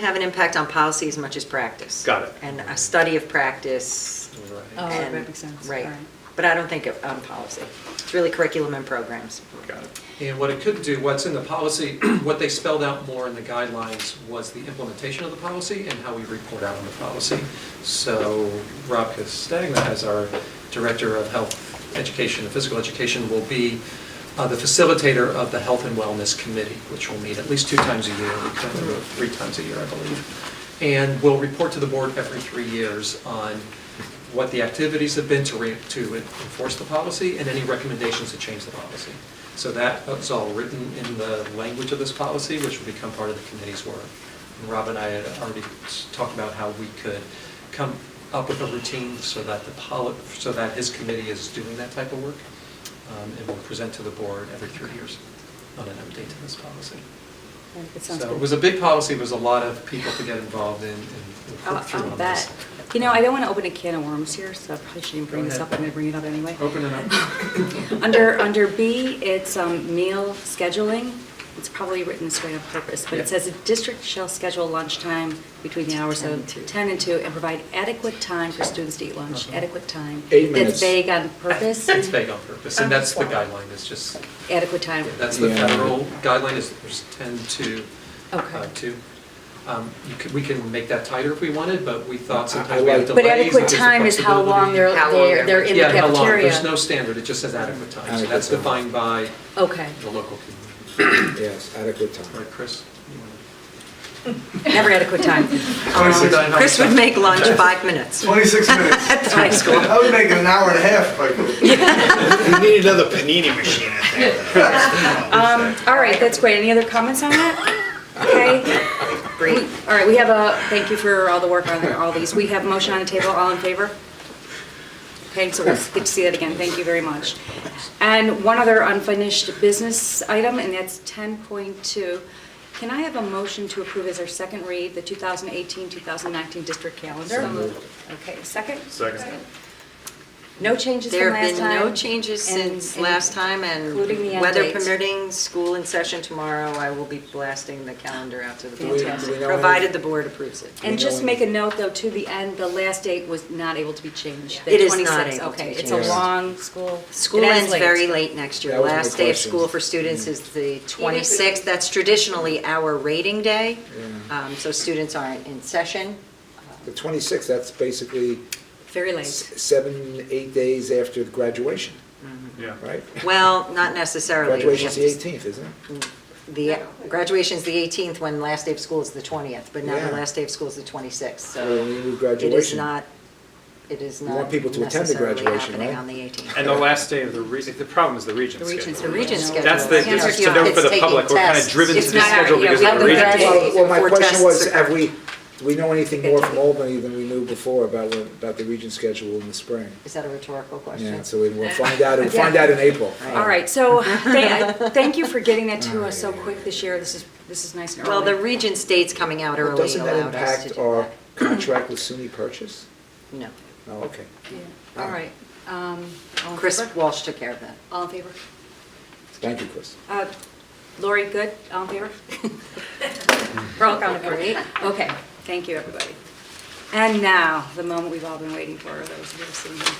have an impact on policy as much as practice. Got it. And a study of practice. Right. Oh, that and- makes sense. Right. All right. But I don't think of, on policy. It's really curriculum and programs. Got it. And what it could do, what's in the policy, what they spelled out more in the guidelines was the implementation of the policy and how we report out on the policy. So Rob Castagna, as our Director of Health Education and Physical Education, will be uh, the facilitator of the Health and Wellness Committee, which will meet at least two times a year, we currently meet three times a year, I believe. And will report to the board every three years on what the activities have been to re- to enforce the policy and any recommendations to change the policy. So that is all written in the language of this policy, which will become part of the committee's work. And Rob and I had already s- talked about how we could come up with a routine so that the poli, so that his committee is doing that type of work. Um, And we'll present to the board every three years on an update to this policy. It sounds So good. it was a big policy, it was a lot of people to get involved in and I'll- work through I'll on this. bet. You know, I don't want to open a can of worms here, so I probably shouldn't bring Go this ahead. up. I'm going to bring it up anyway. Open it up. Under, under B, it's um, meal scheduling. It's probably written this way on purpose, but Yeah. it says the district shall schedule lunchtime between the hours Ten and of two. 10 and 2 and provide adequate time for students to eat lunch, Uh-huh. adequate time. Eight minutes. That's vague on purpose. It's vague on purpose, and that's the guideline, it's just, Adequate time. that's the Yeah. federal guideline, is there's 10 to Okay. uh, 2. Um, you could- We can make that tighter if we wanted, but we I- I thought sometimes we have like- delays. But adequate and there's time is how long they're, How long they're they're in the Yeah, how cafeteria. long, there's no standard, it just says adequate time, so Adequate that's time. defined by Okay. the local community. Yes, adequate time. Right, Chris? you wanna- Never adequate time. Twenty-six. Um, Chris would make lunch five minutes. 26 minutes. That's high school. I would make it an hour and a half if I could. We need another panini machine, I think. Um, all right, that's great. Any other comments on that? Okay, Great. all right, we have a, thank you for all the work on all these. We have a motion on the table, all in favor? Okay, so we'll get to see that again. Thank you very much. And one other unfinished business item, and that's 10.2. Can I have a motion to approve as our second read, the 2018-2019 district calendar? So moved. Okay, second? Second. No changes There from have last time? been no changes and- since and last time and including the end weather date. permitting, school in session tomorrow, I will be blasting the calendar out to the board. Fantastic. Do we know when- Provided the board approves it. And We just don't- make a note, though, to the end, the last date was not able to be changed. the It is not 26th. able to be Okay, it's changed. a long school. School it ends very late next year. That was my Last day of question. school for students is the 26th. That's traditionally our rating day, Yeah. Um, so students aren't in session. The 26th, that's basically Very s- late. seven, eight days after graduation, Yeah. right? Well, not necessarily. Graduation's the 18th, isn't it? The, graduation's the 18th, when last day of school is the 20th, but now the Yeah. last day of school is the 26th, Well, so. we need It is graduation. not, it is You not want people to attend the necessarily graduation, happening right? on the 18th. And the last day of the region, the problem is the region The region's The schedule. Regents schedule. That's the, you know, it's to note for the it's public, we're kind of taking driven to It's the not our- schedule yeah, because we of have the the region. graduate- Well, well, my Four tests question was, occur. have we, do we know anything more from Albany than we knew before about, when- about the region schedule in the spring? Is that a rhetorical question? Yeah, so we- we'll find out, we'll find out in April. All right, so thank thank you for getting that to us so quick this year. This is, this is nice and early. Well, the Regents date's coming out Well, early Doesn't that allowed us to do impact that. our contract with SUNY Purchase? No. Oh, okay. Yeah. All right. um, all in Chris favor? Walsh took care of that. All in favor? Thank you, Chris. Uh, Lori, good? All in favor? We're all counted for, right? Okay, thank you, everybody. And now, the moment we've all been waiting for, those who have seen them.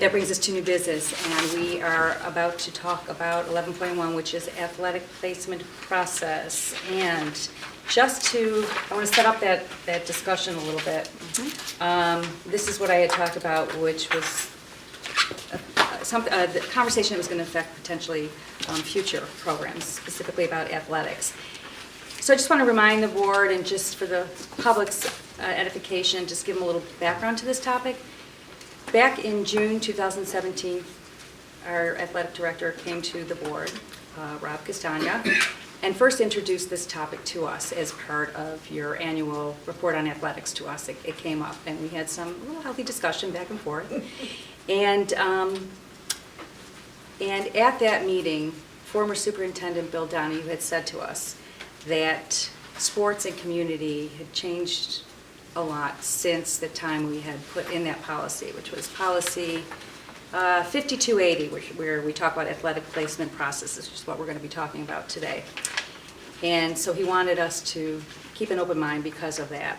That brings us to new business, and we are about to talk about 11.1, which is athletic placement process. And just to, I want to set up that, that discussion a little bit. Um, This is what I had talked about, which was uh, some, uh, the conversation that was going to affect potentially um, future programs, specifically about athletics. So I just want to remind the board and just for the public's uh, edification, just give them a little background to this topic. Back in June 2017, our athletic director came to the board, uh, Rob Castagna, and first introduced this topic to us as part of your annual report on athletics to us. It it came up, and we had some little healthy discussion back and forth. And um, and at that meeting, former Superintendent Bill Donahue had said to us that sports and community had changed a lot since the time we had put in that policy, which was policy uh, 5280, which- where we talk about athletic placement processes, which is what we're going to be talking about today. And so he wanted us to keep an open mind because of that.